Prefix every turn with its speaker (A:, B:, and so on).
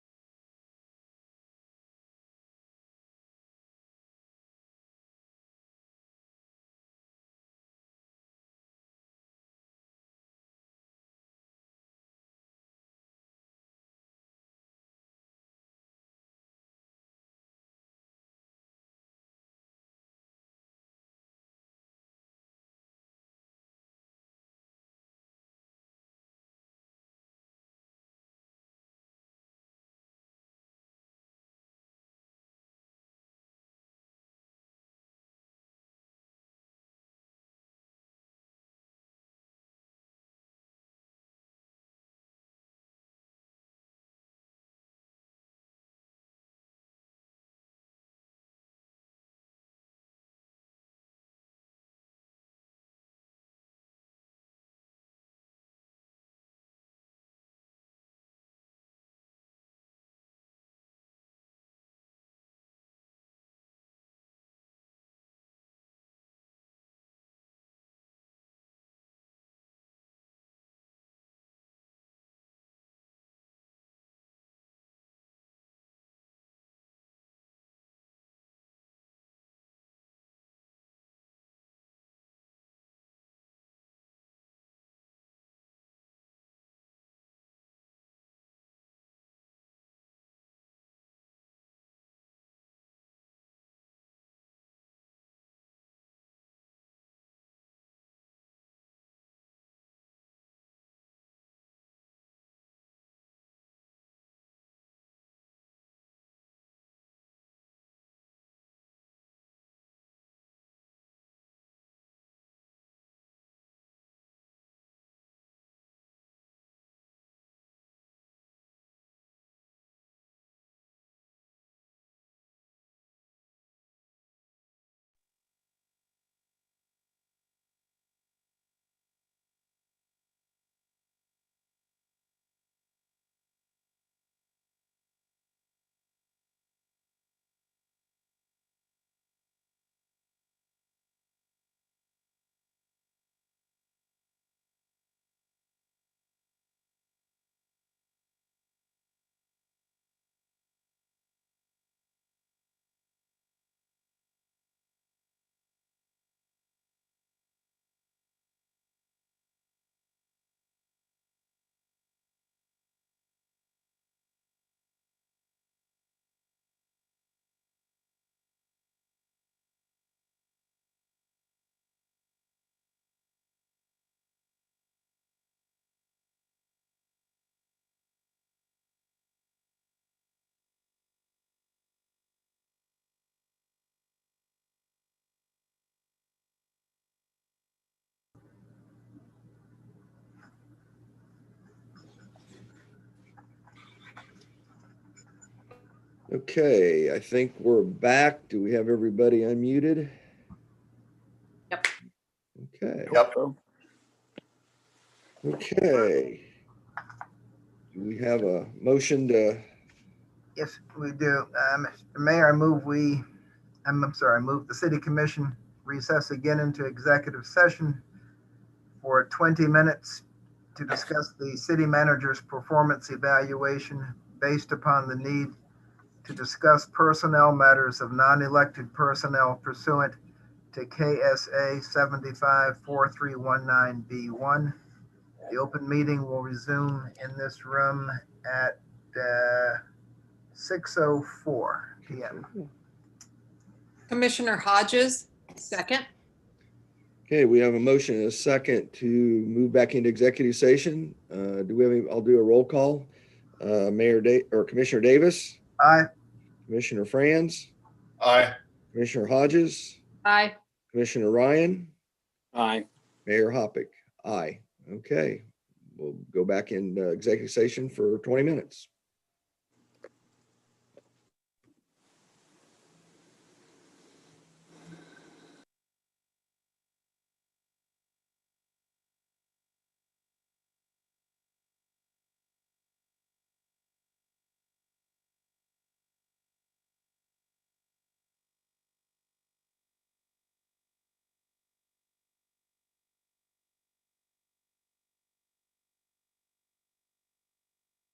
A: Okay, I think we're back. Do we have everybody unmuted?
B: Yep.
A: Okay,
C: Yep.
A: okay. Do we have a motion to,
C: Yes, we do. Uh, Mr. Mayor, I move we, I'm, I'm sorry, I move the city commission recess again into executive session for 20 minutes to discuss the city manager's performance evaluation based upon the need to discuss personnel matters of non-elected personnel pursuant to KSA 754319B1. The open meeting will resume in this room at, uh, 6:04 PM.
B: Commissioner Hodges, second.
A: okay, we have a motion and a second to move back into executive session. Uh, do we have, any? I'll do a roll call. Uh, Mayor Da, or Commissioner Davis,
C: Aye.
A: Commissioner Franz,
D: Aye.
A: Commissioner Hodges,
B: Aye.
A: Commissioner Ryan,
E: Aye.
A: Mayor Hoppick. Aye, okay. We'll go back in uh, executive session for 20 minutes.